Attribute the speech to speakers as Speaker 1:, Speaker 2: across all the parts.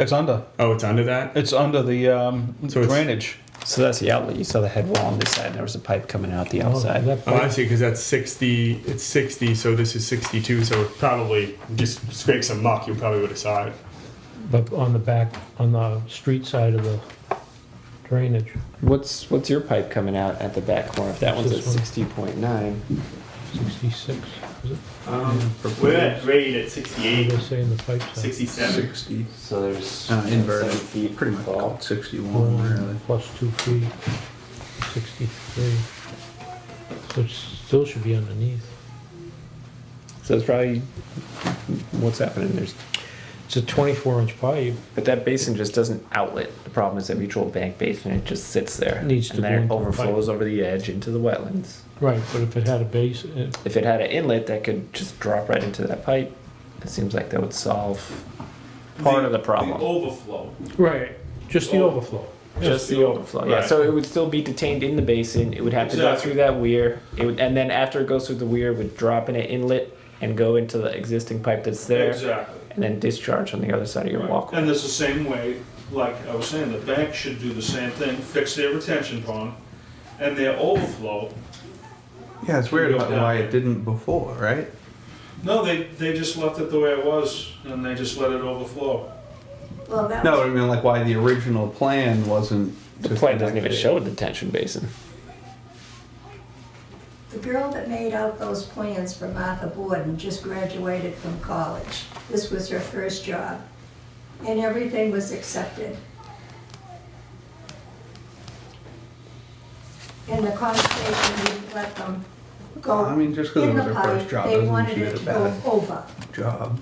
Speaker 1: It's under.
Speaker 2: Oh, it's under that?
Speaker 1: It's under the um,
Speaker 2: So it's-
Speaker 1: drainage.
Speaker 3: So that's the outlet. You saw the head wall on this side, and there was a pipe coming out the outside.
Speaker 2: Oh, I see, because that's 60, it's 60, so this is 62, so it probably just scrape some muck, you probably would have saw it.
Speaker 4: But on the back, on the street side of the drainage,
Speaker 3: What's what's your pipe coming out at the back corner? If that one's at
Speaker 4: This one.
Speaker 3: sixty point nine,
Speaker 4: sixty-six, is it?
Speaker 2: Um, we're at rate at
Speaker 4: What do
Speaker 2: 68,
Speaker 4: they say in the pipe side?
Speaker 2: 67.
Speaker 5: 60,
Speaker 3: so there's
Speaker 5: Uh, inverted.
Speaker 3: seven feet
Speaker 5: pretty much
Speaker 3: fall.
Speaker 5: called 61, really.
Speaker 4: Plus two feet, sixty-three. So it still should be underneath.
Speaker 3: So it's probably what's happening. There's
Speaker 4: It's a twenty-four inch pipe.
Speaker 3: but that basin just doesn't outlet. The problem is that mutual bank basin. It just sits there.
Speaker 4: Needs
Speaker 3: and
Speaker 4: to go
Speaker 3: then it
Speaker 4: into a pipe.
Speaker 3: overflows over the edge into the wetlands.
Speaker 4: Right, but if it had a base, uh, it-
Speaker 3: If it had an inlet that could just drop right into that pipe, it seems like that would solve part of the problem.
Speaker 6: overflow.
Speaker 4: right, just the overflow.
Speaker 3: just the overflow. Yeah,
Speaker 6: Right.
Speaker 3: so it would still be detained in the basin. It would have to go
Speaker 6: Exactly.
Speaker 3: through that weir. It would, and then after it goes through the weir, it would drop in an inlet and go into the existing pipe that's there,
Speaker 6: Exactly.
Speaker 3: and then discharge on the other side of your walkway.
Speaker 6: And it's the same way, like I was saying, the bank should do the same thing, fix their retention pond and their overflow.
Speaker 5: Yeah, it's weird
Speaker 6: Go
Speaker 5: about
Speaker 6: down.
Speaker 5: why it didn't before, right?
Speaker 6: No, they, they just left it the way it was and they just let it overflow.
Speaker 7: Well, that
Speaker 5: No,
Speaker 7: was,
Speaker 5: I mean, like why the original plan wasn't.
Speaker 3: The
Speaker 5: to
Speaker 3: plan doesn't even
Speaker 5: connect it.
Speaker 3: show a detention basin.
Speaker 7: the girl that made out those plans for Martha Borden just graduated from college. This was her first job. And everything was accepted. And the conservation would let them go
Speaker 5: I mean, just 'cause it
Speaker 7: in
Speaker 5: was
Speaker 7: the
Speaker 5: her first
Speaker 7: pipe.
Speaker 5: job
Speaker 7: They
Speaker 5: doesn't
Speaker 7: wanted
Speaker 5: mean
Speaker 7: it
Speaker 5: it's
Speaker 7: to go
Speaker 5: bad.
Speaker 7: over,
Speaker 5: Job.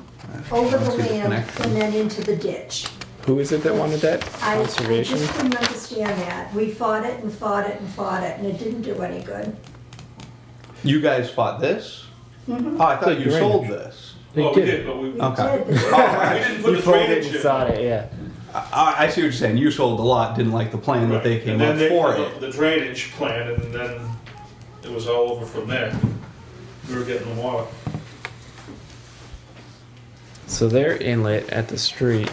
Speaker 5: I
Speaker 7: over
Speaker 5: don't
Speaker 7: the
Speaker 5: see
Speaker 7: land
Speaker 5: connection.
Speaker 7: and then into the ditch.
Speaker 3: Who is it that wanted that
Speaker 7: I I
Speaker 3: conservation?
Speaker 7: just couldn't understand that. We fought it and fought it and fought it, and it didn't do any good.
Speaker 5: You guys fought this?
Speaker 3: Mm-hmm.
Speaker 5: Oh, I thought
Speaker 4: The
Speaker 5: you sold
Speaker 4: drainage.
Speaker 5: this.
Speaker 4: They
Speaker 6: Well, we
Speaker 4: did,
Speaker 6: did, but we, we
Speaker 7: We
Speaker 5: Okay.
Speaker 7: did.
Speaker 6: didn't put the
Speaker 3: folded
Speaker 6: drainage
Speaker 3: and
Speaker 6: in.
Speaker 3: saw it, yeah.
Speaker 5: I, I see what you're saying. You sold a lot, didn't like the plan that they
Speaker 6: Right.
Speaker 5: came
Speaker 6: And then
Speaker 5: up
Speaker 6: they
Speaker 5: for
Speaker 6: put
Speaker 5: it.
Speaker 6: The the drainage plan and then it was all over from there. We were getting the water.
Speaker 3: So their inlet at the street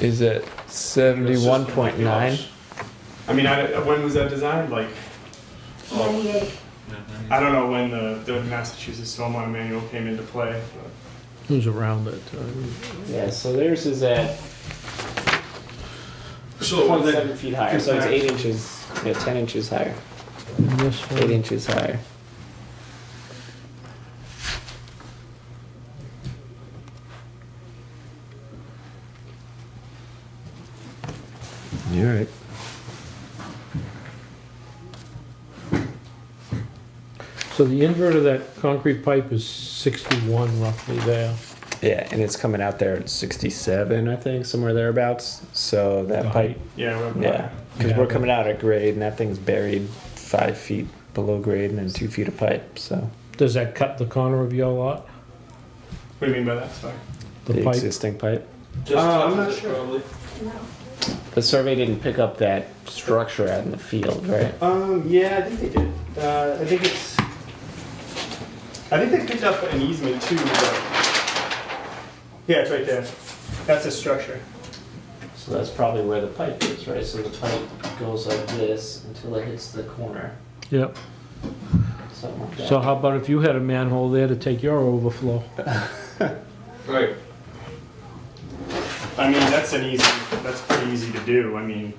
Speaker 3: is at seventy-one point nine.
Speaker 2: I mean, I, when was that designed? Like,
Speaker 7: Ninety-eight.
Speaker 2: I don't know when the, the Massachusetts Stormwater Manual came into play. But
Speaker 4: who's around it, uh,
Speaker 3: Yeah, so theirs is at
Speaker 6: So when they-
Speaker 3: twenty-seven feet higher. So it's eight inches, yeah, ten inches higher,
Speaker 4: in this
Speaker 3: eight
Speaker 4: one,
Speaker 3: inches higher. You're right.
Speaker 4: so the invert of that concrete pipe is sixty-one roughly there.
Speaker 3: Yeah, and it's coming out there at 67, I think, somewhere thereabouts. So that
Speaker 4: The
Speaker 3: pipe,
Speaker 4: height.
Speaker 2: yeah, we're,
Speaker 3: yeah, because
Speaker 4: Yeah,
Speaker 3: we're
Speaker 4: but-
Speaker 3: coming out at grade, and that thing's buried five feet below grade, and then two feet of pipe. So
Speaker 4: Does that cut the corner of your lot,
Speaker 2: what do you mean by that? Sorry.
Speaker 4: the
Speaker 3: the
Speaker 4: pipe?
Speaker 3: existing pipe.
Speaker 6: Just
Speaker 2: Uh, I'm
Speaker 6: touching
Speaker 2: not
Speaker 6: it, probably.
Speaker 7: No.
Speaker 3: The survey didn't pick up that structure out in the field, right?
Speaker 2: Um, yeah, I think they did. Uh, I think it's. I think they picked up an easement too, but. Yeah, it's right there. That's a structure.
Speaker 3: So that's probably where the pipe is, right? So the pipe goes like this until it hits the corner,
Speaker 4: Yep,
Speaker 3: something like
Speaker 4: so how about if you had a manhole there to take your overflow?
Speaker 6: Right.
Speaker 2: I mean, that's an easy. That's pretty easy to do. I mean,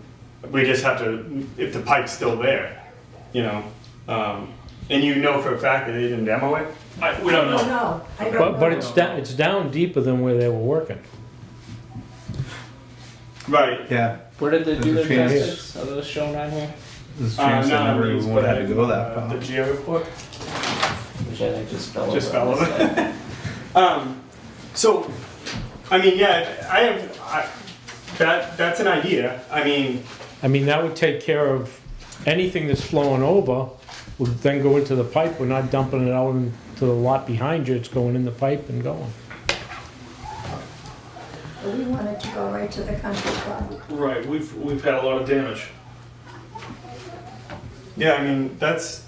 Speaker 2: we just have to. If the pipe's still there, you know, um, and you know for a fact that they didn't demo it.
Speaker 6: I, we don't
Speaker 7: Oh,
Speaker 6: know.
Speaker 7: no, I don't know.
Speaker 4: But, but it's down, it's down deeper than where they were working.
Speaker 2: Right.
Speaker 5: Yeah.
Speaker 3: Where did they
Speaker 5: do There's a their chance.
Speaker 3: tests? Are those shown on here? Uh,
Speaker 5: There's a
Speaker 2: Uh,
Speaker 5: chance that never even would have had to go that
Speaker 2: The
Speaker 5: far.
Speaker 2: geo report.
Speaker 3: Which I think just fell
Speaker 2: Just
Speaker 3: over on
Speaker 2: fell
Speaker 3: this side.
Speaker 2: Um, so, I mean, yeah, I have. I, that that's an idea. I mean,
Speaker 4: I mean, that would take care of anything that's flowing over, would then go into the pipe, we're not dumping it out into the lot behind you, it's going in the pipe and going.
Speaker 7: But We wanted to go right to the country club.
Speaker 6: Right, we've, we've had a lot of damage,
Speaker 2: yeah, I mean that's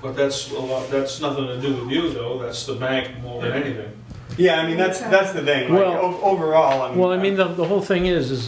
Speaker 6: but that's a lot, that's nothing to do with you though, that's the bank more than anything.
Speaker 2: Yeah, I mean, that's, that's the thing, like,
Speaker 4: Well-
Speaker 2: o- overall, I mean.
Speaker 4: Well, I mean, the, the whole thing is, is